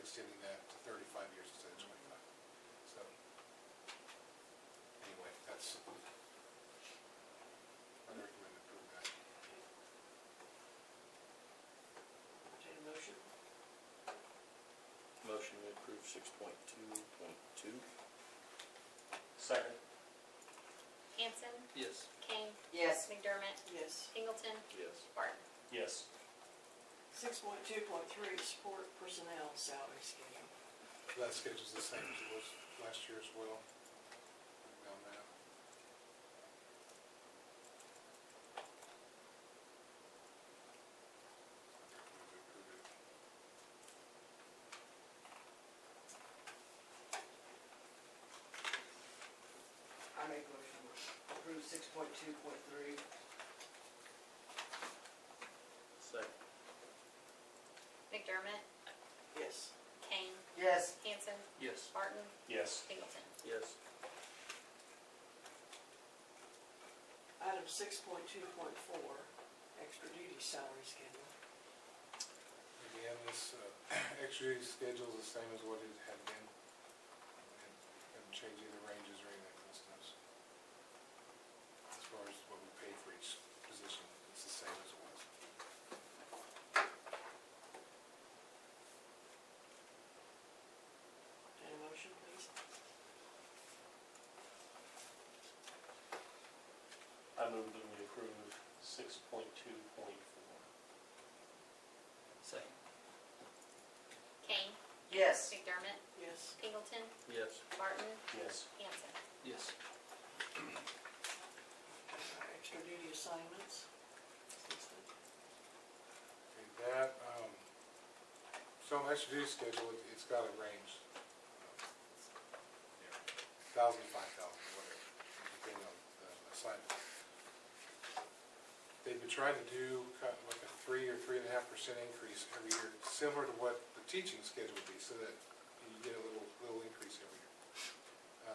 extending that to thirty-five years instead of twenty-five. So, anyway, that's, I recommend approving that. Entertain a motion? Motion to approve six point two point two? Second. Hanson, Yes. King, Yes. McDermott, Yes. Pingleton, Yes. Barton. Yes. Six point two point three, support personnel salary schedule. That schedule's the same as it was last year as well. Down there. I make motion to approve six point two point three. Second. McDermott, Yes. Kane, Yes. Hanson, Yes. Barton, Yes. Pingleton. Yes. Item six point two point four, extra duty salary schedule. Again, this uh, extra schedule's the same as what it had been. And Haven't changed any ranges or anything for instance. As far as what we paid for each position, it's the same as it was. Entertain a motion, please? I move that we approve six point two point four. Second. Kane, Yes. McDermott, Yes. Pingleton, Yes. Barton, Yes. Hanson. Yes. Uh, Extra duty assignments. And that, um, so my extra duty schedule, it- it's got a range. Thousand, five thousand, whatever, depending on the assignment. They've been trying to do kind of like a three or three and a half percent increase every year, similar to what the teaching schedule would be, so that you get a little, little increase every year.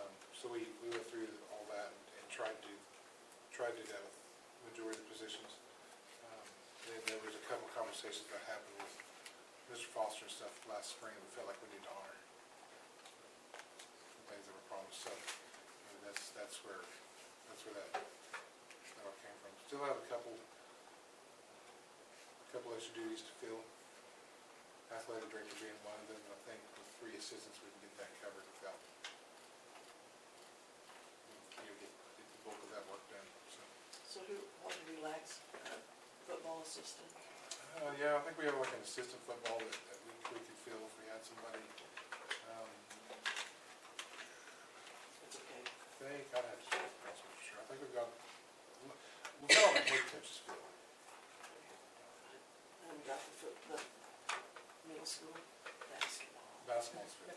Um, So we, we went through all that and tried to, tried to do that with majority of the positions. Um, Then there was a couple conversations that happened with Mr. Foster and stuff last spring, we felt like we needed to honor the things that were promised, so you know, that's, that's where, that's where that, that all came from. Still have a couple, a couple extra duties to fill, athletic director being one of them, and I think with three assistants, we can get that covered without, you know, get, get the bulk of that work done, so. So who, what do we lack? Uh, Football assistant? Uh, yeah, I think we have like an assistant football that, that we, we could fill if we had somebody. Um, It's okay. I think, I'd have to check the council for sure, I think we've got, we've got a head coach's field. And we got the foot, the middle school basketball. basketball's field. I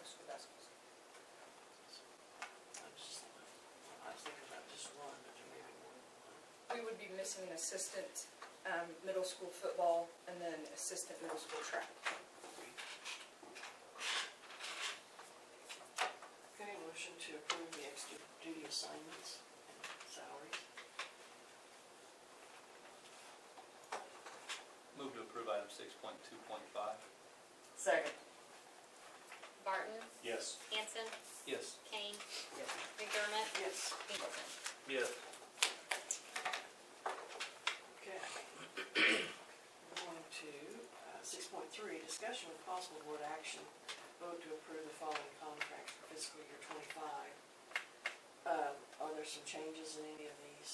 was just, I was thinking about just one, but there may be more. We would be missing an assistant um, middle school football and then assistant middle school track. Okay, motion to approve the extra duty assignments and salaries. Move to approve item six point two point five. Second. Barton, Yes. Hanson, Yes. Kane, McDermott, Yes. Pingleton. Yes. Okay. We're Going to uh, six point three, discussion with possible board action, vote to approve the following contracts for fiscal year twenty-five. Um, Are there some changes in any of these?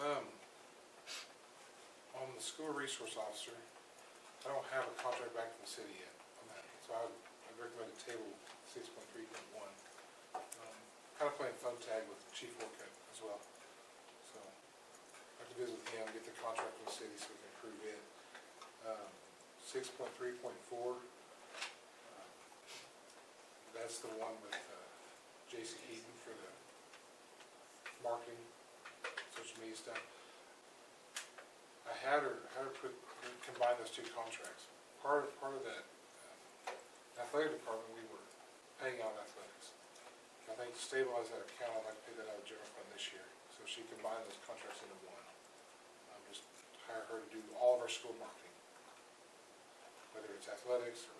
Um, on the school resource officer, I don't have a contract back from the city yet on that, so I would, I'd recommend to table six point three point one. Kind of playing phone tag with Chief Orcutt as well, so I have to visit with him, get the contract from the city so we can approve it. Um, Six point three point four, uh, that's the one with uh, J.C. Eaton for the marketing social media stuff. I had her, had her put, combine those two contracts. Part of, part of that um, athletic department, we were paying out athletics. I think to stabilize that account, I'd like to pay that out of general fund this year. So she combined those contracts into one. Um, Just hire her to do all of our school marketing, whether it's athletics or